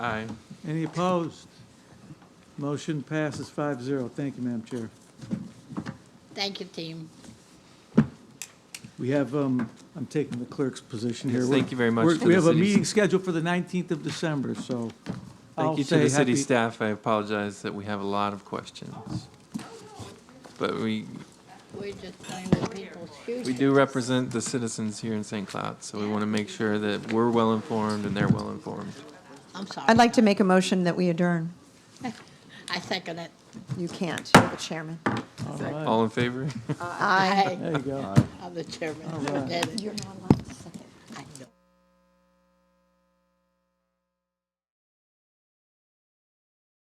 Aye. Any opposed? Motion passes 5-0. Thank you, Madam Chair. Thank you, team. We have, um, I'm taking the clerk's position here. Yes, thank you very much We're- to We the have a city- meeting scheduled for the 19th of December, so I'll Thank you to say the city happy- staff. I apologize that we have a lot of questions. But we, We're just playing with people's shoes. we do represent the citizens here in St. Cloud, so we want to make sure that we're well-informed and they're well-informed. I'm sorry. I'd like to make a motion that we adjourn. I second it. You can't, you're the chairman. All right. All in favor? Aye. Aye. There you go. I'm the chairman. right. Forget it. You're not allowed